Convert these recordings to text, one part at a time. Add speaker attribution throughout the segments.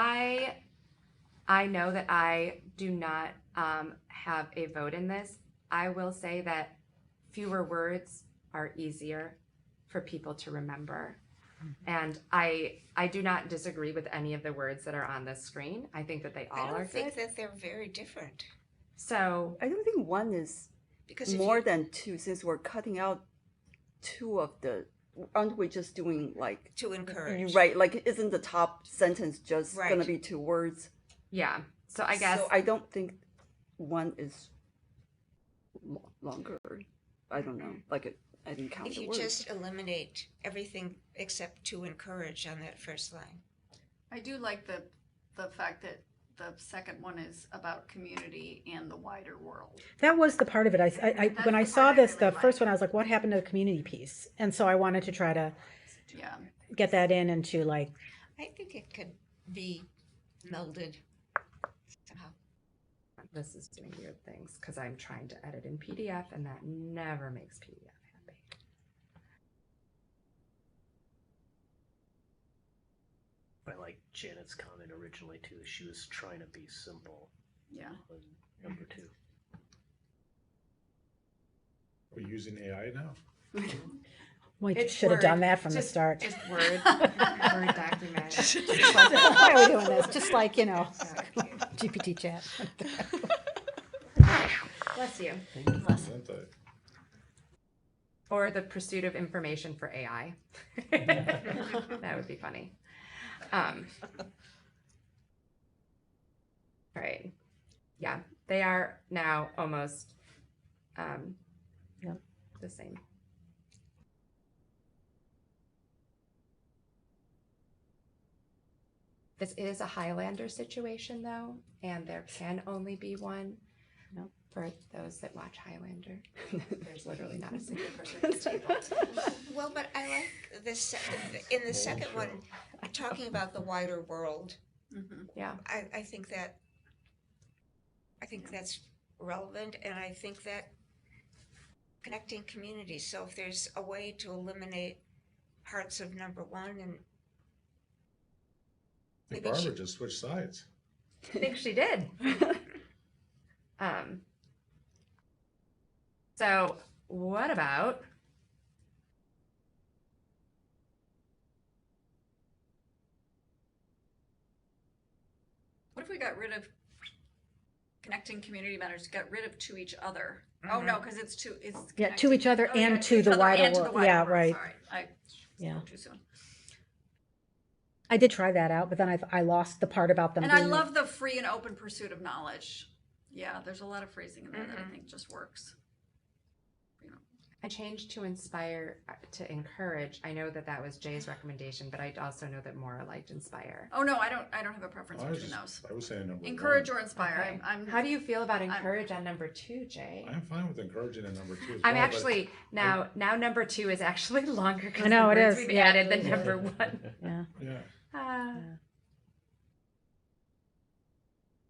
Speaker 1: I I know that I do not um, have a vote in this. I will say that fewer words are easier for people to remember.
Speaker 2: Mm-hmm.
Speaker 1: And I I do not disagree with any of the words that are on this screen. I think that they all
Speaker 2: I
Speaker 1: are
Speaker 2: don't
Speaker 1: good.
Speaker 2: think that they're very different
Speaker 1: so
Speaker 3: I don't think one is
Speaker 2: because if
Speaker 3: more
Speaker 2: you,
Speaker 3: than two since we're cutting out two of the aren't we just doing like
Speaker 2: to
Speaker 3: you
Speaker 2: encourage.
Speaker 3: right like isn't the top sentence just gonna
Speaker 2: Right.
Speaker 3: be two words
Speaker 1: yeah. So I guess
Speaker 3: so I don't think one is lo- longer I don't know like it, I didn't count
Speaker 2: If
Speaker 3: the
Speaker 2: you
Speaker 3: words
Speaker 2: just eliminate everything except to encourage on that first line.
Speaker 4: I do like the, the fact that the second one is about community and the wider world.
Speaker 5: That was the part of it. I, I, I when I
Speaker 4: That's the
Speaker 5: saw
Speaker 4: part I
Speaker 5: this, the
Speaker 4: really
Speaker 5: first
Speaker 4: like.
Speaker 5: one, I was like, "What happened to the community piece?" And so I wanted to try to
Speaker 4: Yeah.
Speaker 5: get that in and to like,
Speaker 2: I think it could be melded somehow.
Speaker 1: this is doing weird things because I'm trying to edit in PDF and that never makes PDF happy.
Speaker 6: I like Janet's comment originally too. She was trying to be simple
Speaker 4: Yeah.
Speaker 6: on number two.
Speaker 7: We're using AI now.
Speaker 5: "We
Speaker 1: It's
Speaker 5: should have done
Speaker 1: Word.
Speaker 5: that from the
Speaker 1: Just-
Speaker 5: start."
Speaker 1: Just Word, Word document.
Speaker 5: It's like, Why are we doing this? Just like you know, GPT chat.
Speaker 1: Bless you.
Speaker 7: Aren't they?
Speaker 1: Or the pursuit of information for AI. that would be funny. Um, all right. Yeah, they are now almost um,
Speaker 5: Yeah.
Speaker 1: the same. This is a Highlander situation, though, and there can only be one.
Speaker 5: No.
Speaker 1: For those that watch Highlander, there's literally not a single person at this table.
Speaker 2: Well, but I like this, se- in the second one, talking about the wider world,
Speaker 4: Mhm.
Speaker 1: Yeah,
Speaker 2: I, I think that, I think that's relevant, and I think that connecting communities, so if there's a way to eliminate parts of number one and
Speaker 7: I think
Speaker 2: Maybe she-
Speaker 7: Barbara just switched sides.
Speaker 1: I think she did. um, so, what about
Speaker 4: What if we got rid of connecting community matters, got rid of to each other? Oh, no, because it's to, it's.
Speaker 5: Yeah, to
Speaker 4: connected.
Speaker 5: each other
Speaker 4: Oh, yeah,
Speaker 5: and to
Speaker 4: each
Speaker 5: the
Speaker 4: other
Speaker 5: wider
Speaker 4: and to
Speaker 5: world.
Speaker 4: wider
Speaker 5: Yeah,
Speaker 4: world.
Speaker 5: right.
Speaker 4: Sorry, I
Speaker 5: Yeah.
Speaker 4: spoke too soon.
Speaker 5: I did try that out, but then I, I lost the part about them.
Speaker 4: And I
Speaker 5: being-
Speaker 4: love the free and open pursuit of knowledge. Yeah, there's a lot of phrasing in there that I think just works.
Speaker 1: I changed to inspire uh, to encourage? I know that that was Jay's recommendation, but I also know that Maura liked inspire.
Speaker 4: Oh, no, I don't, I don't have a preference
Speaker 7: I was,
Speaker 4: between
Speaker 7: just,
Speaker 4: those.
Speaker 7: I was saying number
Speaker 4: Encourage
Speaker 7: one.
Speaker 4: or inspire.
Speaker 1: Okay.
Speaker 4: I'm, I'm-
Speaker 1: How do you feel about encourage on number two, Jay?
Speaker 7: I'm fine with encouraging in number two. as
Speaker 1: I'm
Speaker 7: well, but
Speaker 1: actually now now number two is actually longer
Speaker 5: I
Speaker 1: because
Speaker 5: know,
Speaker 1: the
Speaker 5: it
Speaker 1: words
Speaker 5: is.
Speaker 1: we've
Speaker 5: Yeah.
Speaker 1: added than number one.
Speaker 5: Yeah,
Speaker 7: Yeah.
Speaker 1: Ah.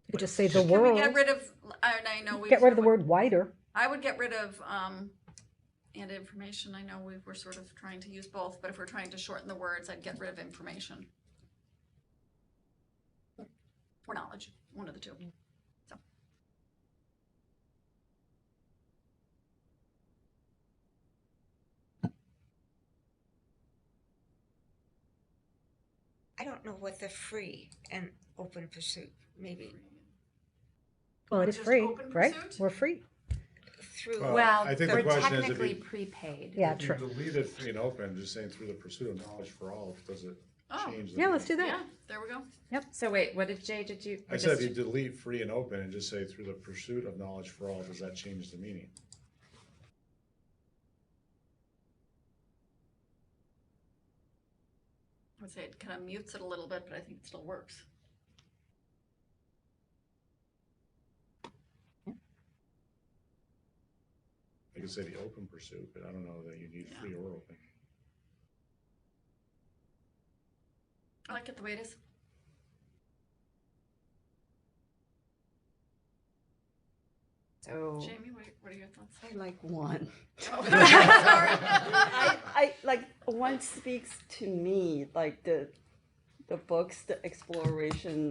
Speaker 5: you could just say the
Speaker 4: Can we
Speaker 5: world.
Speaker 4: get rid of, and I know we.
Speaker 5: Get rid of the word wider.
Speaker 4: I would get rid of, um, and information, I know we were sort of trying to use both, but if we're trying to shorten the words, I'd get rid of information. Or knowledge, one of the two.
Speaker 2: I don't know what the free and open pursuit, maybe
Speaker 5: Well, it is
Speaker 4: Just
Speaker 5: free,
Speaker 4: open
Speaker 5: right?
Speaker 4: pursuit?
Speaker 5: We're free.
Speaker 2: through.
Speaker 7: Well,
Speaker 1: Well,
Speaker 7: I think the
Speaker 1: we're
Speaker 7: question is if
Speaker 1: technically
Speaker 7: you-
Speaker 1: prepaid.
Speaker 5: Yeah,
Speaker 7: If
Speaker 5: true.
Speaker 7: You deleted free and open, just saying through the pursuit of knowledge for all, does it
Speaker 4: Oh,
Speaker 7: change? the
Speaker 5: Yeah, let's do
Speaker 7: meaning?
Speaker 5: that.
Speaker 4: yeah, there we go.
Speaker 1: So wait, what did Jay? Did you? or
Speaker 7: I said if
Speaker 1: just-
Speaker 7: you delete free and open and just say through the pursuit of knowledge for all, does that change the meaning?
Speaker 4: I would say it kind of mutes it a little bit, but I think it still works.
Speaker 7: I could say the open pursuit, but I don't know that you need
Speaker 4: Yeah.
Speaker 7: free or open.
Speaker 4: I like it the way it is.
Speaker 1: So
Speaker 4: Jamie, what, what are your thoughts?
Speaker 3: I like one
Speaker 4: Sorry.
Speaker 3: I, I like one speaks to me like the the books, the exploration